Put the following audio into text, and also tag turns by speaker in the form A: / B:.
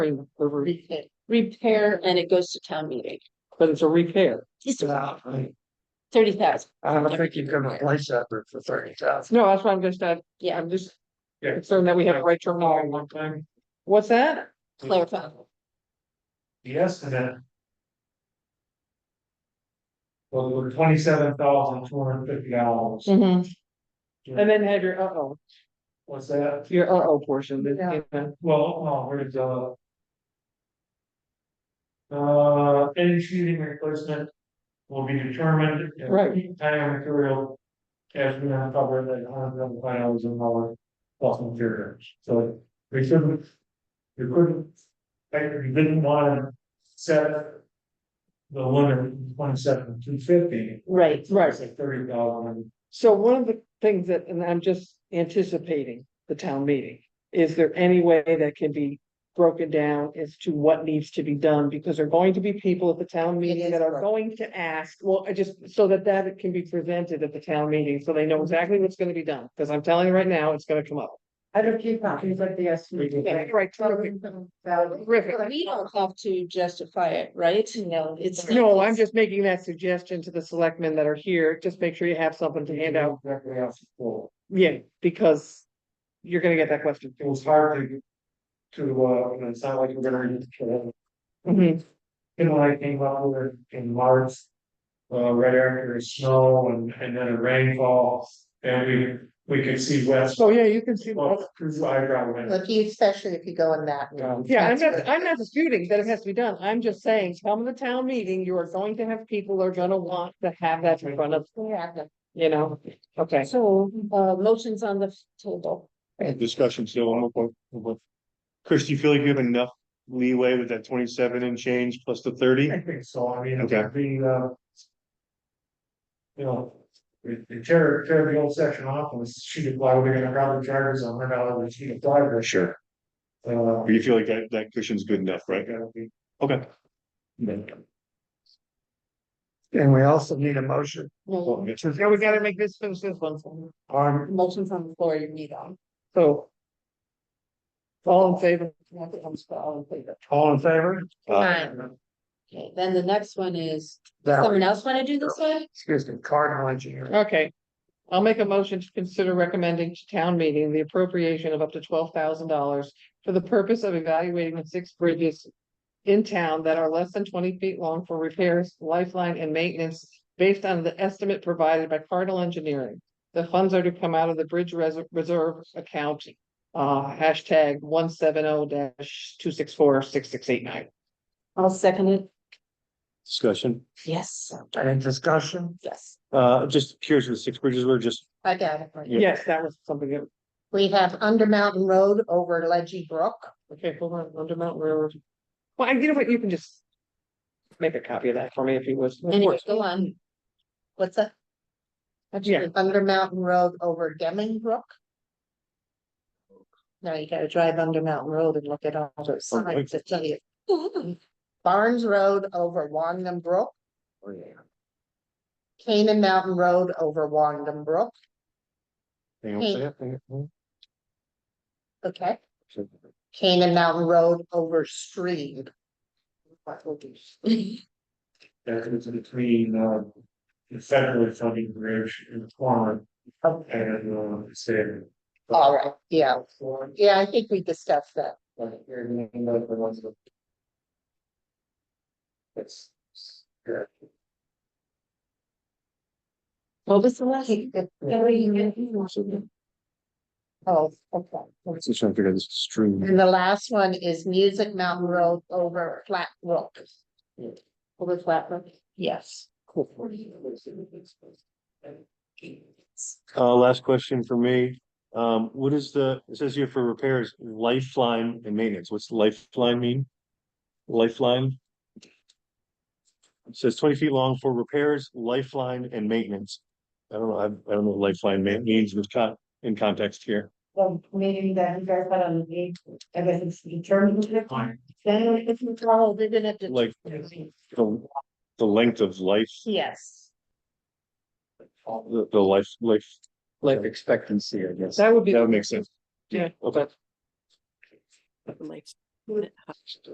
A: the roof,
B: repair and it goes to town meeting,
A: but it's a repair.
B: it's
C: Yeah, I mean,
B: thirty thousand,
C: I don't think you can replace that roof for thirty thousand.
A: No, that's why I'm just, not-
B: yeah,
A: I'm just
C: Yeah.
A: concerned that we have the right term.
C: one time.
A: What's that?
B: clarify.
C: The estimate. Well, we were twenty-seven thousand two hundred fifty dollars.
A: And then have your uh-oh,
C: What's that?
A: your uh-oh portion. that-
C: Yeah.
A: yeah.
C: Well, no, where's uh. Uh, any shooting replacement will be determined. if
A: Right.
C: Time and material. As we uncover that hundred and five dollars an hour plus materials, so we shouldn't. We couldn't, like, we didn't wanna set. The limit twenty seven, two fifty.
B: Right.
A: Right.
C: Like thirty thousand.
A: So one of the things that, and I'm just anticipating the town meeting, is there any way that can be broken down as to what needs to be done? Because there are going to be people at the town meeting
B: is
A: that are
B: correct.
A: going to ask, well, I just, so that that can be presented at the town meeting, so they
B: Mm-hmm.
A: know exactly what's gonna be done, because I'm telling you right now, it's gonna come up.
D: I don't keep copies of the estimate.
B: Mm-hmm.
A: Yeah, Right, terrific, terrific.
B: But we don't have to justify it, right? No. It's.
A: No, I'm just making that suggestion to the selectmen that are here, just make sure you have something to hand
B: Mm-hmm.
A: out,
C: Exactly, how it's full.
A: yeah, because you're gonna get that question.
C: it was hard to. To, uh, you know, it's not like we're gonna, you
A: Mhm.
C: know, I came up with it in March. Uh, right after the snow and, and then a rainfall, and we, we could see west.
A: So, Oh, yeah, you can see.
C: Well, through eyebrow wind.
D: Lucky especially if you go in that.
C: Um,
A: Yeah, I'm
D: That's
A: not, I'm not disputing that it has to be done. I'm just saying, come to the town meeting, you are going to have people who are gonna want to have that in front of, you know, okay.
B: So, uh, motions on the table.
E: and discussion still on what, what. Chris, do you feel like you have enough leeway with that twenty-seven and change plus the thirty?
C: I think so, I mean, it
E: Okay.
C: would be, uh. You know, the, the tear, tear the old section off and sheet of plywood, we're gonna probably charge us a hundred dollars a sheet of plywood.
E: Sure.
C: Uh,
E: Or you feel like that, that cushion's good enough, right?
C: that'll be-
E: Okay.
C: And we also need a motion.
B: No,
A: Yeah, we gotta make this, finish this one.
C: Um,
B: motions on the floor you need on.
A: So. All in favor?
C: all in favor?
E: Uh,
B: Okay, then the next one is,
C: That,
B: someone else wanna do this one?
C: excuse me, cardinal engineer.
A: Okay. I'll make a motion to consider recommending to town meeting the appropriation of up to twelve thousand dollars for the purpose of evaluating the six bridges in town that are less than twenty feet long for repairs, lifeline and maintenance based on the estimate provided by Cardinal Engineering. The funds are to come out of the bridge res- reserve account, uh, hashtag one seven oh dash two six four six six eight nine.
B: I'll second it.
E: Discussion,
B: Yes,
C: Any discussion?
B: yes.
E: uh, just curious with six bridges, we're just,
D: I got it. right.
E: Yeah.
A: Yes, that was something that,
D: We have Under Mountain Road over Ledgy Brook.
A: okay, hold on, Under Mountain Railroad. Well, and you know what, you can just make a copy of that for me if you would. Of
B: Anyway,
A: course.
B: go on.
D: What's that?
A: Yeah.
D: Under Mountain Road over Deming Brook. Now you gotta drive Under Mountain Road and look at all those
E: Oh,
D: signs to tell you. Barnes Road over Wandam Brook.
E: Oh,
D: Canaan Mountain Road over Wandam Brook,
E: hang on a second.
D: okay? Canaan Mountain Road over Stream. What will be-
C: That is between, uh, the federal funding bridge and Quan and, uh, state.
D: All right, yeah,
C: Four,
D: yeah, I think we discussed that.
C: like, you're gonna end up with ones that- That's, yeah,
B: What was the last?
D: Oh, okay.
E: Just trying to figure out this stream.
D: And the last one is Music Mountain Road over Flat Brook.
B: Over flat roof.
D: Yes.
E: Uh, last question for me, um, what is the, it says here for repairs, lifeline and maintenance, what's lifeline mean? Lifeline? It says twenty feet long for repairs, lifeline and maintenance. I don't know, I, I don't know what lifeline ma- means with con- in context here.
F: Well, meaning that you guys had on the, I guess it's determined.
C: Fine.
F: Then if you follow, they're gonna have to.
E: Like the, the length of life,
D: Yes.
E: the, the life, life.
C: Life expectancy, I guess.
A: That would be.
E: That would make sense.
A: Yeah.
E: Okay.